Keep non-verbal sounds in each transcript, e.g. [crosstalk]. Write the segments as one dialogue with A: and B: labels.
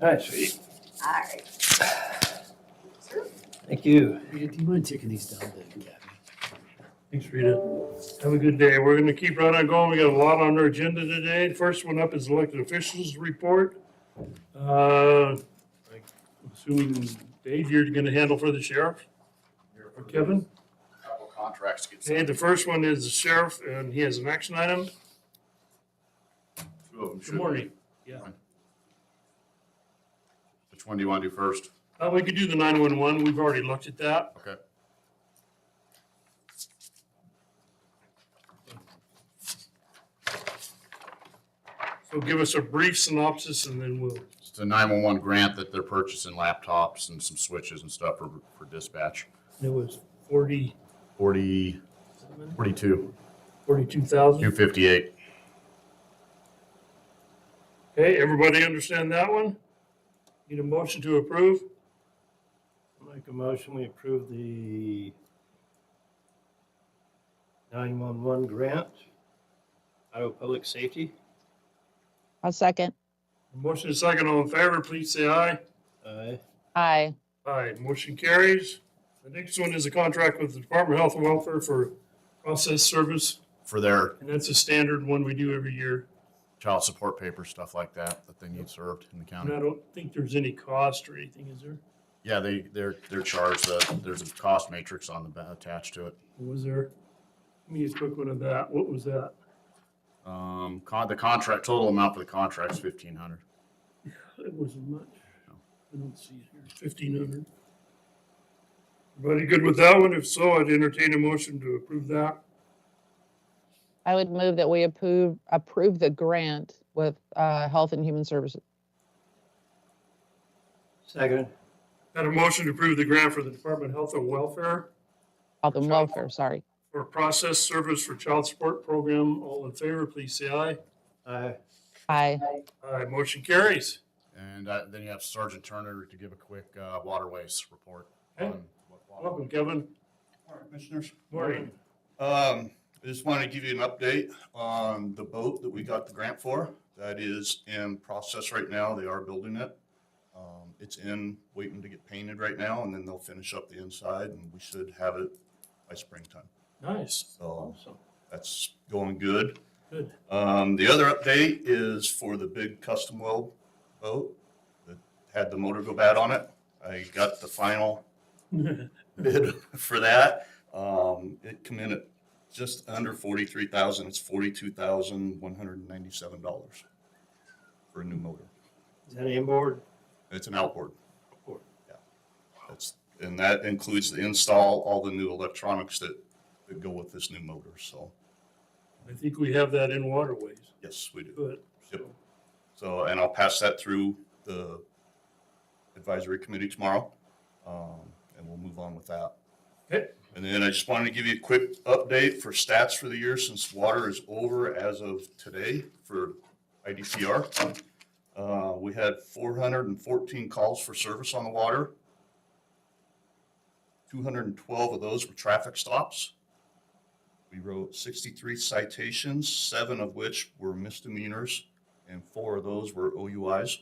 A: All right, sweet.
B: All right.
A: Thank you.
C: Yeah, do you mind taking these down to Gabby?
D: Thanks, Rita. Have a good day. We're gonna keep right on going. We got a lot on our agenda today. First one up is elected officials report. Uh, I- Assuming Dave, you're gonna handle for the sheriff or Kevin?
E: Couple contracts to get
D: Okay,
E: signed.
D: the first one is the sheriff and he has an action item.
E: Two of them should
D: Good
E: be.
D: morning.
E: Which one do you want to do first?
D: Uh, we could do the nine-one-one. We've already looked at that.
E: Okay.
D: So give us a brief synopsis and then we'll,
E: It's a nine-one-one grant that they're purchasing laptops and some switches and stuff for, for dispatch.
D: it was forty,
E: Forty, forty-two,
D: forty-two thousand.
E: two fifty-eight.
D: Okay, everybody understand that one? Need a motion to approve?
C: Make a motion, we approve the nine-one-one grant, Iowa Public Safety.
F: I'll second.
D: Motion is second, all in favor, please say aye.
C: Aye.
F: Aye.
D: Aye, motion carries. The next one is a contract with the Department of Health and Welfare for process service,
E: For their
D: and that's a standard one we do every year.
E: child support papers, stuff like that, that they need served in the
D: And I
E: county.
D: don't think there's any cost or anything, is there?
E: Yeah, they, they're, they're charged, uh, there's a cost matrix on the, ba- attached to it.
D: Or Was there? Give me a quick one of that. What was that?
E: Um, con, the contract, total amount for the contract's fifteen hundred.
D: It wasn't much. I don't see it here. Fifteen hundred. Everybody good with that one? If so, I'd entertain a motion to approve that.
F: I would move that we approve, approve the grant with uh, Health and Human Services.
C: Second.
D: Had a motion to approve the grant for the Department of Health and Welfare
F: Health and
D: Sure.
F: Welfare, sorry.
D: for process service for child support program. All in favor, please say aye.
C: Aye.
F: Aye.
D: Aye, motion carries.
E: And uh, then you have Sergeant Turner to give a quick uh, waterways report.
D: Okay.
E: on what water-
D: Welcome, Kevin.
G: All right, Commissioners.
D: Morning.
G: Um, I just wanted to give you an update on the boat that we got the grant for. That is in process right now. They are building it. Um, it's in, waiting to get painted right now, and then they'll finish up the inside, and we should have it by springtime.
D: Nice.
G: So
D: Awesome.
G: that's going good.
D: Good.
G: Um, the other update is for the big custom weld boat that had the motor go bad on it. I got
D: [laughs]
G: the final bid for that. Um, it come in at just under forty-three thousand, it's forty-two thousand, one hundred and ninety-seven dollars for a new motor.
C: Is that inboard?
G: It's an outboard.
C: Outboard.
G: Yeah. That's, and that includes the install, all the new electronics that, that go with this new motor, so,
D: I think we have that in waterways.
G: yes, we do.
D: Good.
G: Yep.
D: So,
G: So, and I'll pass that through the advisory committee tomorrow, um, and we'll move on with that.
D: Okay.
G: And then I just wanted to give you a quick update for stats for the year since water is over as of today for IDCR. Uh, we had four hundred and fourteen calls for service on the water. Two hundred and twelve of those were traffic stops. We wrote sixty-three citations, seven of which were misdemeanors, and four of those were OUIs.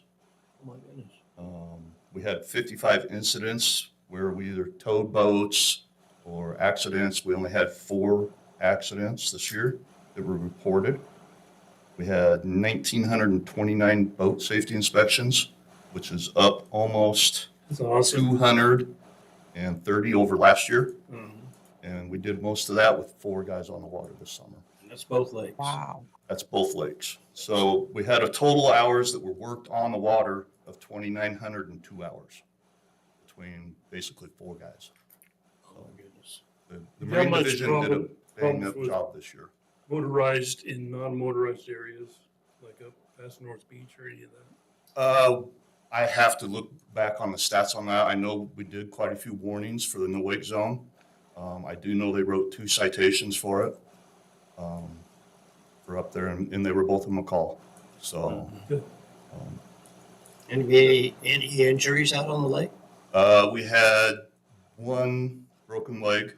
C: Oh my goodness.
G: Um, we had fifty-five incidents where we either towed boats or accidents. We only had four accidents this year that were reported. We had nineteen hundred and twenty-nine boat safety inspections, which is up almost
D: That's awesome.
G: two hundred and thirty over last year.
D: Mhm.
G: And we did most of that with four guys on the water this summer.
C: And That's both lakes.
F: Wow.
G: That's both lakes. So we had a total hours that were worked on the water of twenty-nine hundred and two hours between basically four guys.
C: Oh my goodness.
G: The the
D: How
G: Marine
D: much
G: Division did a
D: problem-
G: bang
D: problems
G: up
D: was-
G: job this year.
D: Motorized in non-motorized areas, like up past North Beach or any of that.
G: Uh, I have to look back on the stats on that. I know we did quite a few warnings for the no wake zone. Um, I do know they wrote two citations for it. Um, for up there and, and they were both in McCall, so.
D: Good.
G: um,
C: Any, any injuries out on the lake?
G: Uh, we had one broken leg